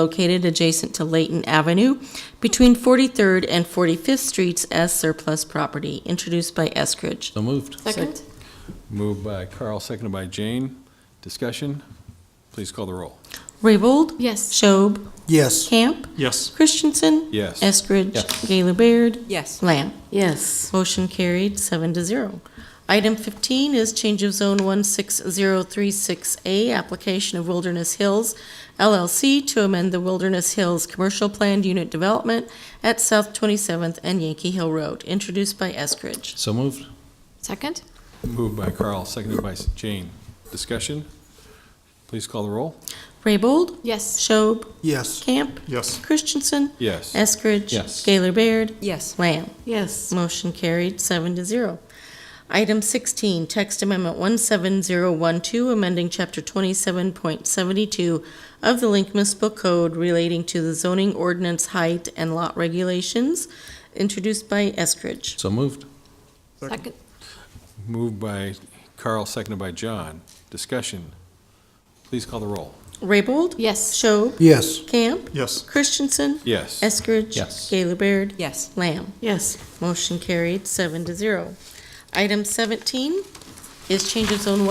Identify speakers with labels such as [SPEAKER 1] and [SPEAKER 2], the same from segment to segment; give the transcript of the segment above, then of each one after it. [SPEAKER 1] located adjacent to Layton Avenue between 43rd and 45th Streets as surplus property, introduced by Eskridge.
[SPEAKER 2] So moved.
[SPEAKER 3] Second?
[SPEAKER 2] Moved by Carl, seconded by Jane. Discussion? Please call the roll.
[SPEAKER 1] Raybold?
[SPEAKER 3] Yes.
[SPEAKER 1] Schob?
[SPEAKER 4] Yes.
[SPEAKER 1] Camp?
[SPEAKER 5] Yes.
[SPEAKER 1] Christensen?
[SPEAKER 2] Yes.
[SPEAKER 1] Eskridge?
[SPEAKER 2] Yes.
[SPEAKER 1] Gaylor Baird?
[SPEAKER 3] Yes.
[SPEAKER 1] Lamb?
[SPEAKER 3] Yes.
[SPEAKER 1] Motion carried, seven to zero. Item 15 is change of zone 16036A, application of Wilderness Hills LLC to amend the Wilderness Hills Commercial Planned Unit Development at South 27th and Yankee Hill Road, introduced by Eskridge.
[SPEAKER 2] So moved.
[SPEAKER 3] Second?
[SPEAKER 2] Moved by Carl, seconded by Jane. Discussion? Please call the roll.
[SPEAKER 1] Raybold?
[SPEAKER 3] Yes.
[SPEAKER 1] Schob?
[SPEAKER 4] Yes.
[SPEAKER 1] Camp?
[SPEAKER 5] Yes.
[SPEAKER 1] Christensen?
[SPEAKER 2] Yes.
[SPEAKER 1] Eskridge?
[SPEAKER 2] Yes.
[SPEAKER 1] Gaylor Baird?
[SPEAKER 3] Yes.
[SPEAKER 1] Lamb?
[SPEAKER 3] Yes.
[SPEAKER 1] Motion carried, seven to zero. Item 16, text amendment 17012, amending Chapter 27.72 of the Link Municipal Code relating to the zoning ordinance height and lot regulations, introduced by Eskridge.
[SPEAKER 2] So moved.
[SPEAKER 3] Second?
[SPEAKER 2] Moved by Carl, seconded by John. Discussion? Please call the roll.
[SPEAKER 1] Raybold?
[SPEAKER 3] Yes.
[SPEAKER 1] Schob?
[SPEAKER 4] Yes.
[SPEAKER 1] Camp?
[SPEAKER 5] Yes.
[SPEAKER 1] Christensen?
[SPEAKER 2] Yes.
[SPEAKER 1] Eskridge?
[SPEAKER 2] Yes.
[SPEAKER 1] Gaylor Baird?
[SPEAKER 3] Yes.
[SPEAKER 1] Lamb?
[SPEAKER 3] Yes.
[SPEAKER 1] Motion carried, seven to zero. Item 17 is change of zone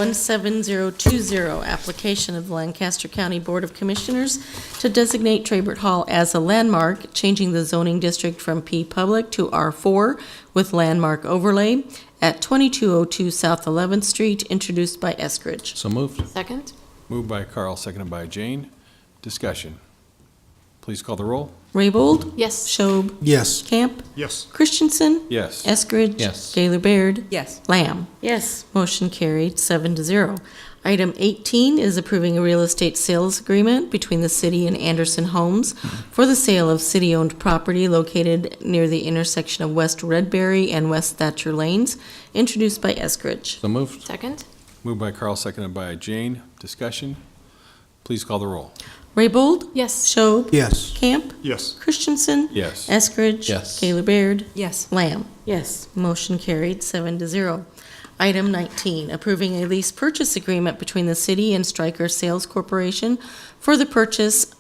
[SPEAKER 1] 17020, application of the Lancaster County Board of Commissioners to designate Traybert Hall as a landmark, changing the zoning district from P Public to R4 with landmark overlay at 2202 South 11th Street, introduced by Eskridge.
[SPEAKER 2] So moved.
[SPEAKER 3] Second?
[SPEAKER 2] Moved by Carl, seconded by Jane. Discussion? Please call the roll.
[SPEAKER 1] Raybold?
[SPEAKER 3] Yes.
[SPEAKER 1] Schob?
[SPEAKER 4] Yes.
[SPEAKER 1] Camp?
[SPEAKER 5] Yes.
[SPEAKER 1] Christensen?
[SPEAKER 2] Yes.
[SPEAKER 1] Eskridge?
[SPEAKER 2] Yes.
[SPEAKER 1] Gaylor Baird?
[SPEAKER 3] Yes.
[SPEAKER 1] Lamb?
[SPEAKER 3] Yes.
[SPEAKER 1] Motion carried, seven to zero. Item 18 is approving a real estate sales agreement between the city and Anderson Homes for the sale of city-owned property located near the intersection of West Redberry and West Thatcher Lanes, introduced by Eskridge.
[SPEAKER 2] So moved.
[SPEAKER 3] Second?
[SPEAKER 2] Moved by Carl, seconded by Jane. Discussion? Please call the roll.
[SPEAKER 1] Raybold?
[SPEAKER 3] Yes.
[SPEAKER 1] Schob?
[SPEAKER 4] Yes.
[SPEAKER 1] Camp?
[SPEAKER 5] Yes.
[SPEAKER 1] Christensen?
[SPEAKER 2] Yes.
[SPEAKER 1] Eskridge?
[SPEAKER 2] Yes.
[SPEAKER 1] Gaylor Baird?
[SPEAKER 3] Yes.
[SPEAKER 1] Lamb?
[SPEAKER 3] Yes.
[SPEAKER 1] Motion carried, seven to zero. Item 19, approving a lease purchase agreement between the city and Stryker Sales Corporation for the purchase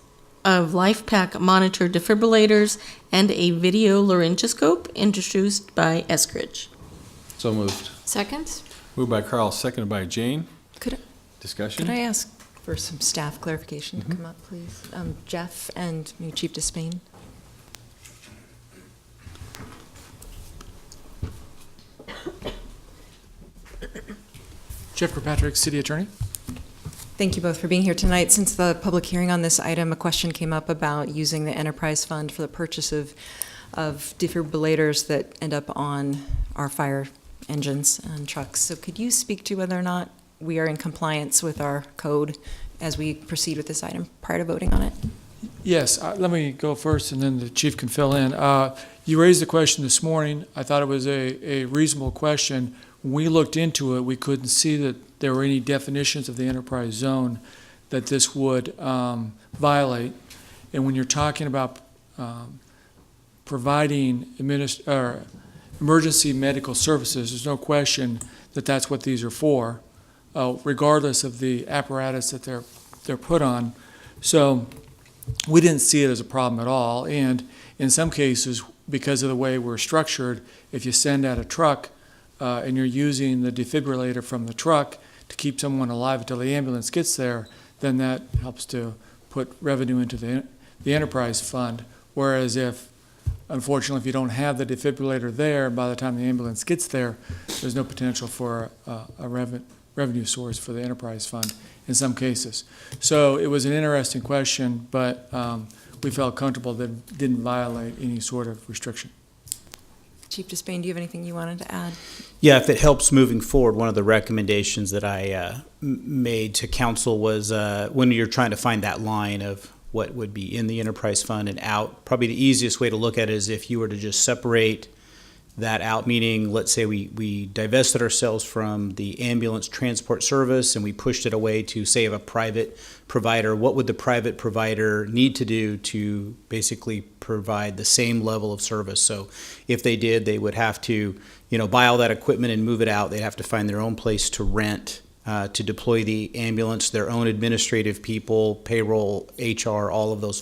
[SPEAKER 1] of LifePak monitor defibrillators and a video laryngoscope introduced by Eskridge.
[SPEAKER 2] So moved.
[SPEAKER 3] Second?
[SPEAKER 2] Moved by Carl, seconded by Jane.
[SPEAKER 6] Could I-
[SPEAKER 2] Discussion?
[SPEAKER 6] Could I ask for some staff clarification to come up, please? Um, Jeff and new Chief Despain?
[SPEAKER 7] Jeff Kirkpatrick, City Attorney.
[SPEAKER 6] Thank you both for being here tonight. Since the public hearing on this item, a question came up about using the enterprise fund for the purchase of, of defibrillators that end up on our fire engines and trucks. So could you speak to whether or not we are in compliance with our code as we proceed with this item prior to voting on it?
[SPEAKER 7] Yes, uh, let me go first, and then the chief can fill in. Uh, You raised the question this morning. I thought it was a a reasonable question. When we looked into it, we couldn't see that there were any definitions of the enterprise zone that this would um, violate. And when you're talking about um, providing adminis- or emergency medical services, there's no question that that's what these are for, uh, regardless of the apparatus that they're, they're put on. So we didn't see it as a problem at all. And in some cases, because of the way we're structured, if you send out a truck uh, and you're using the defibrillator from the truck to keep someone alive until the ambulance gets there, then that helps to put revenue into the, the enterprise fund. Whereas if, unfortunately, if you don't have the defibrillator there, by the time the ambulance gets there, there's no potential for uh, a revenue, revenue source for the enterprise fund in some cases. So it was an interesting question, but um, we felt comfortable that it didn't violate any sort of restriction.
[SPEAKER 6] Chief Despain, do you have anything you wanted to add?
[SPEAKER 8] Yeah, if it helps moving forward, one of the recommendations that I uh, m- made to council was uh, when you're trying to find that line of what would be in the enterprise fund and out, probably the easiest way to look at it is if you were to just separate that out, meaning, let's say we, we divested ourselves from the ambulance transport service and we pushed it away to, say, of a private provider, what would the private provider need to do to basically provide the same level of service? So if they did, they would have to, you know, buy all that equipment and move it out. They'd have to find their own place to rent, uh, to deploy the ambulance, their own administrative people, payroll, HR, all of those